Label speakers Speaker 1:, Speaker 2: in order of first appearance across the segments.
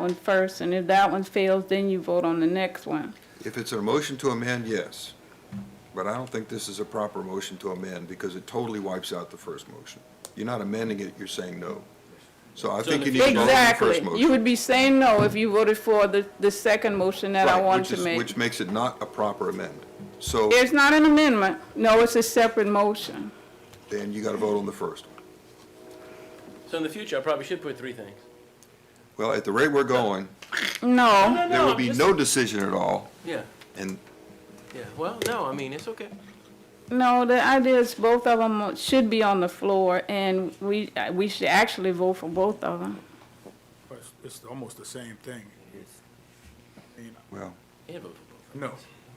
Speaker 1: one first, and if that one fails, then you vote on the next one.
Speaker 2: If it's a motion to amend, yes. But I don't think this is a proper motion to amend because it totally wipes out the first motion. You're not amending it, you're saying no. So I think you need to vote on the
Speaker 1: Exactly.
Speaker 2: first
Speaker 1: You
Speaker 2: motion.
Speaker 1: would be saying no if you voted for the, the second motion that I
Speaker 2: Right,
Speaker 1: wanted
Speaker 2: which
Speaker 1: to
Speaker 2: is-
Speaker 1: make.
Speaker 2: Which makes it not a proper amend. So
Speaker 1: It's not an amendment. No, it's a separate motion.
Speaker 2: then you got to vote on the first one.
Speaker 3: So in the future, I probably should put three things.
Speaker 2: Well, at the rate we're going,
Speaker 1: No,
Speaker 2: there will
Speaker 3: I'm
Speaker 2: be
Speaker 3: just-
Speaker 2: no decision at all.
Speaker 3: Yeah,
Speaker 2: And
Speaker 3: yeah. Well, no, I mean, it's okay.
Speaker 1: no, the idea is both of them should be on the floor, and we, uh, we should actually vote for both of them.
Speaker 4: But it's- it's almost the same thing. You know,
Speaker 2: Well,
Speaker 3: Yeah, vote for
Speaker 4: No,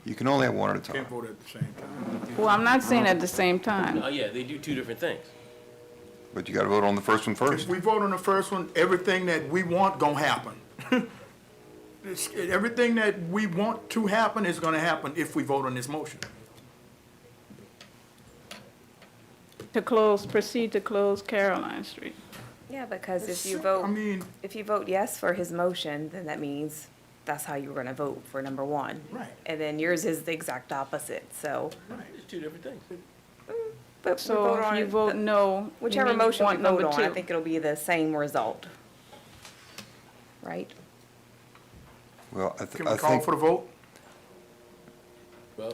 Speaker 2: you can only have one at a time.
Speaker 4: can't vote at the same time.
Speaker 1: Well, I'm not saying at the same
Speaker 3: both.
Speaker 1: time.
Speaker 3: Oh, yeah, they do two different things.
Speaker 2: But you got to vote on the first one
Speaker 4: If
Speaker 2: first.
Speaker 4: we vote on the first one, everything that we want gonna happen. It's- Everything that we want to happen is gonna happen if we vote on this motion.
Speaker 1: To close, proceed to close Caroline Street.
Speaker 5: Yeah, because if you
Speaker 4: I
Speaker 5: vote,
Speaker 4: mean,
Speaker 5: if you vote yes for his motion, then that means that's how you're gonna vote for number one.
Speaker 4: Right.
Speaker 5: And then yours is the exact opposite, so,
Speaker 3: It's two different things.
Speaker 5: but we
Speaker 1: So
Speaker 5: vote on
Speaker 1: if you
Speaker 5: it-
Speaker 1: vote no, you
Speaker 5: Whichever
Speaker 1: need-
Speaker 5: motion we
Speaker 1: want number
Speaker 5: vote on, I
Speaker 1: two.
Speaker 5: think it'll be the same result. Right?
Speaker 2: Well, I, th-
Speaker 4: can
Speaker 2: I
Speaker 4: we call
Speaker 2: think
Speaker 4: for the vote?
Speaker 3: Well,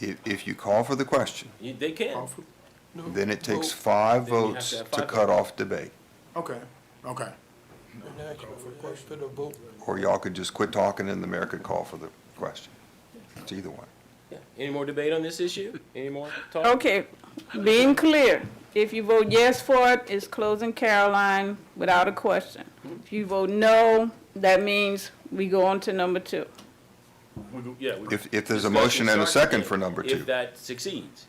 Speaker 2: if, if you call for the question,
Speaker 3: you, they can.
Speaker 4: Call for-
Speaker 2: then it takes five
Speaker 3: Then you have to
Speaker 2: votes
Speaker 3: have
Speaker 2: to
Speaker 3: five
Speaker 2: cut off debate.
Speaker 4: Okay, okay.
Speaker 2: Or y'all could just quit talking and the mayor could call for the question. It's either one.
Speaker 3: Yeah. Any more debate on this issue? Any more talk?
Speaker 1: Okay, being clear, if you vote yes for it, it's closing Caroline without a question. If you vote no, that means we go on to number two.
Speaker 3: We go- Yeah. we-
Speaker 2: If, if there's a
Speaker 3: discussion
Speaker 2: motion and a
Speaker 3: starts
Speaker 2: second
Speaker 3: again
Speaker 2: for number
Speaker 3: If
Speaker 2: two.
Speaker 3: that succeeds.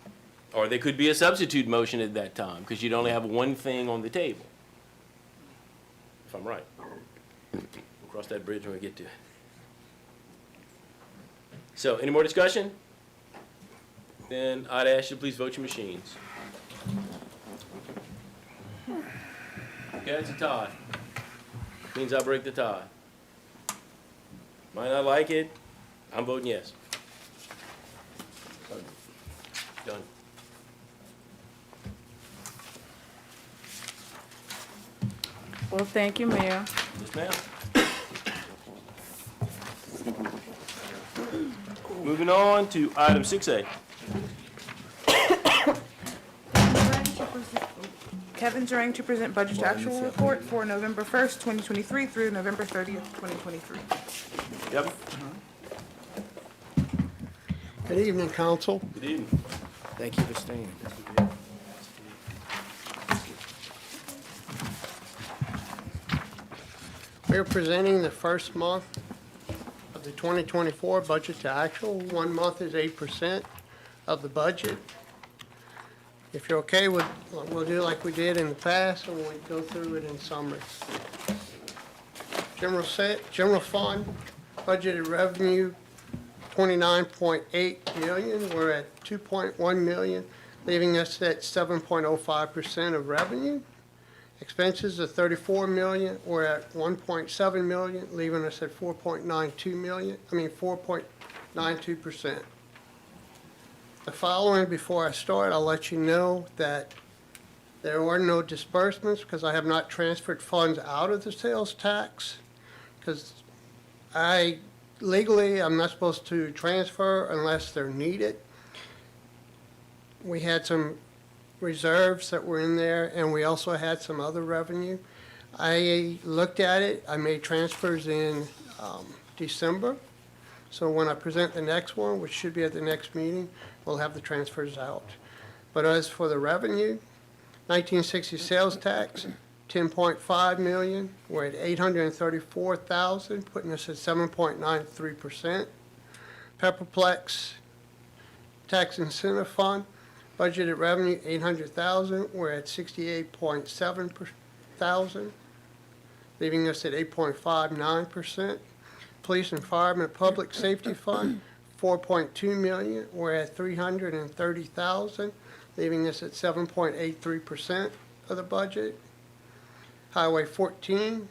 Speaker 3: Or there could be a substitute motion at that time, because you'd only have one thing on the table. If I'm right. We'll cross that bridge when we get to it. So, any more discussion? Then I'd ask you to please vote your machines. Okay, it's a tie. Means I break the tie. Might not like it, I'm voting yes. Done.
Speaker 1: Well, thank you, Mayor.
Speaker 3: Yes, ma'am. Moving on to item six A.
Speaker 6: Kevin Durang to present budget to actual report for November 1st, 2023 through November 30th, 2023.
Speaker 3: Yep.
Speaker 7: Good evening, council.
Speaker 3: Good evening.
Speaker 8: Thank you for staying.
Speaker 7: We're presenting the first month of the 2024 budget to actual. One month is 8% of the budget. If you're okay with, we'll do like we did in the past, and we'll go through it in summary. General set, general fund, budgeted revenue 29.8 million. We're at 2.1 million, leaving us at 7.05% of revenue. Expenses of 34 million, we're at 1.7 million, leaving us at 4.92 million, I mean, 4.92%. The following, before I start, I'll let you know that there are no disbursements because I have not transferred funds out of the sales tax. Because I legally, I'm not supposed to transfer unless they're needed. We had some reserves that were in there, and we also had some other revenue. I looked at it, I made transfers in um, December, so when I present the next one, which should be at the next meeting, we'll have the transfers out. But as for the revenue, 1960 sales tax, 10.5 million, we're at 834,000, putting us at 7.93%. Pepperplex Tax Incentive Fund, Budgeted revenue, eight hundred thousand, we're at sixty-eight point seven thousand, leaving us at eight point five nine percent. Police and Fireman Public Safety Fund, four point two million, we're at three hundred and thirty thousand, leaving us at seven point eight three percent of the budget. Highway fourteen,